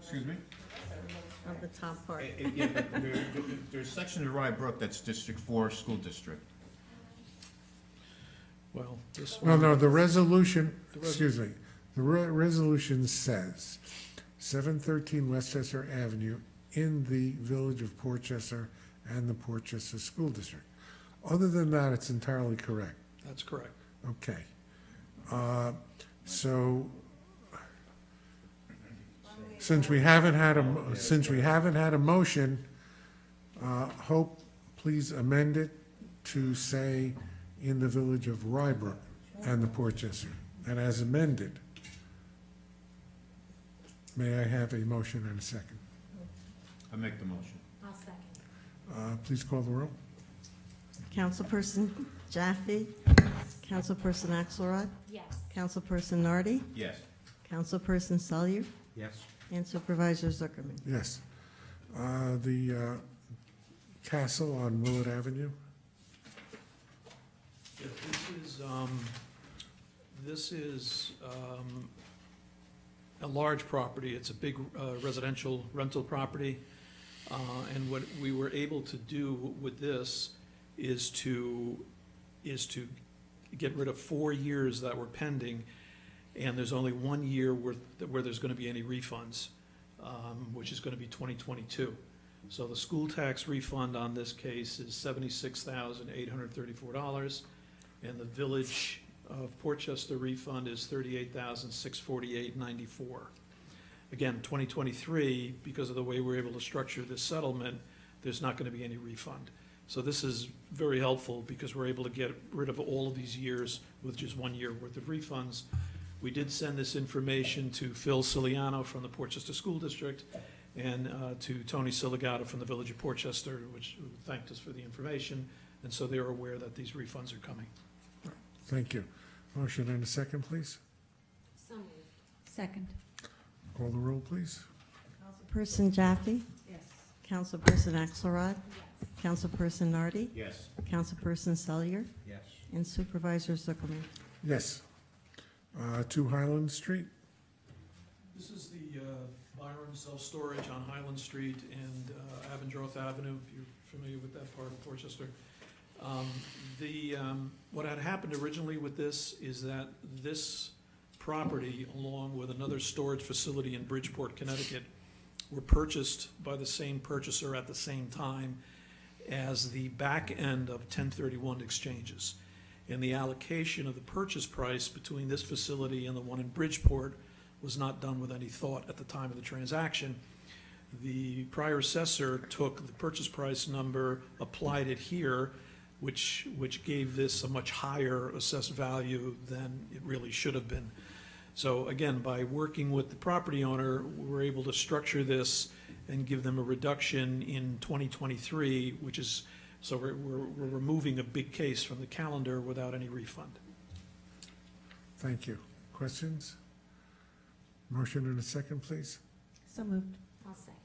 Excuse me? of the top Eh, part. eh, Yeah, but there- there- There's a section of Rye Brook that's District Four School District. Well, this Well, one, no, the resolution, The res- excuse me, the re- resolution says seven thirteen Westchester Avenue in the village of Portchester and the Portchester School District. Other than that, it's entirely correct. that's correct. Okay. Uh, So, since we haven't had a, mo- since we haven't had a motion, uh, Hope, please amend it to say in the village of Rybrook and the Portchester, and as amended. May I have a motion and a second? I make the motion. I'll second. Uh, Please call the roll. Councilperson Jaffe, Councilperson Axelrod, Yes. Councilperson Nardi, Yes. Councilperson Selyer, Yes. and Supervisor Zuckerman. Yes. Uh, The uh, castle on Willard Avenue? Yeah, This is, um, this is, um, a large property. It's a big uh, residential rental property. Uh, and what we were able to do with this is to, is to get rid of four years that were pending. And there's only one year where, where there's gonna be any refunds, um, which is gonna be twenty twenty-two. So the school tax refund on this case is seventy-six thousand eight hundred thirty-four dollars. And the Village of Portchester refund is thirty-eight thousand, six forty-eight, ninety-four. Again, twenty twenty-three, because of the way we're able to structure this settlement, there's not gonna be any refund. So this is very helpful, because we're able to get rid of all of these years with just one year worth of refunds. We did send this information to Phil Ciliano from the Portchester School District, and uh, to Tony Siligata from the Village of Portchester, which who thanked us for the information, and so they're aware that these refunds are coming. Thank you. Motion and a second, please. So moved. Second. Call the roll, please. Councilperson Jaffe, Yes. Councilperson Axelrod, Councilperson Nardi, Yes. Councilperson Selyer, Yes. and Supervisor Zuckerman. Yes. Uh, Two Highland Street, This is the uh, Byram Self-Storage on Highland Street and uh, Avondroth Avenue, if you're familiar with that part of Portchester. Um, The, um, what had happened originally with this is that this property, along with another storage facility in Bridgeport, Connecticut, were purchased by the same purchaser at the same time as the back end of 1031 exchanges. And the allocation of the purchase price between this facility and the one in Bridgeport was not done with any thought at the time of the transaction. The prior assessor took the purchase price number, applied it here, which, which gave this a much higher assessed value than it really should have been. So again, by working with the property owner, we were able to structure this and give them a reduction in 2023, which is, so we're, we're we're removing a big case from the calendar without any refund. thank you. Questions? Motion and a second, please. So moved. I'll second.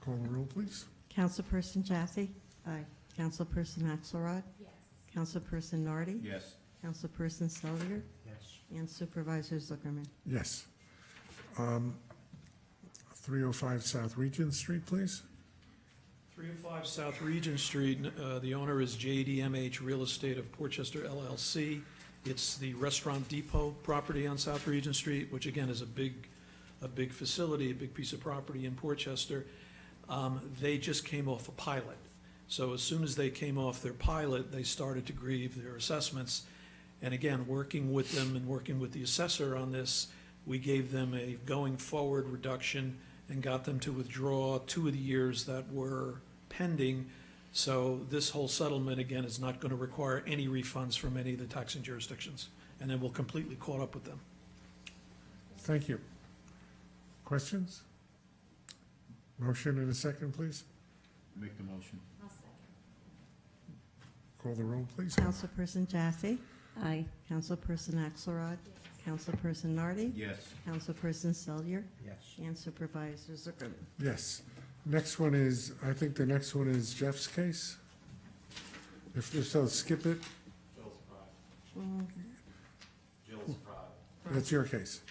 Call the roll, please. Councilperson Jaffe. Aye. Councilperson Axelrod, Yes. Councilperson Nardi, Yes. Councilperson Selyer, Yes. and Supervisor Zuckerman. Yes. Um, 305 South Regent Street, please. 305 South Regent Street, uh, the owner is JDMH Real Estate of Portchester LLC. It's the Restaurant Depot property on South Regent Street, which again is a big, a big facility, a big piece of property in Portchester. Um, They just came off a pilot. So as soon as they came off their pilot, they started to grieve their assessments. And again, working with them and working with the assessor on this, we gave them a going-forward reduction and got them to withdraw two of the years that were pending. So this whole settlement, again, is not going to require any refunds from any of the taxing jurisdictions. And then we'll completely caught up with them. Thank you. Questions? Motion and a second, please. Make the motion. I'll second. Call the roll, please. Councilperson Jaffe. Aye. Councilperson Axelrod, Councilperson Nardi, Yes. Councilperson Selyer, Yes. and Supervisor Zuckerman. Yes. Next one is, I think the next one is Jeff's case. If if so, skip it. Jill's pride. Jill's pride. That's your case.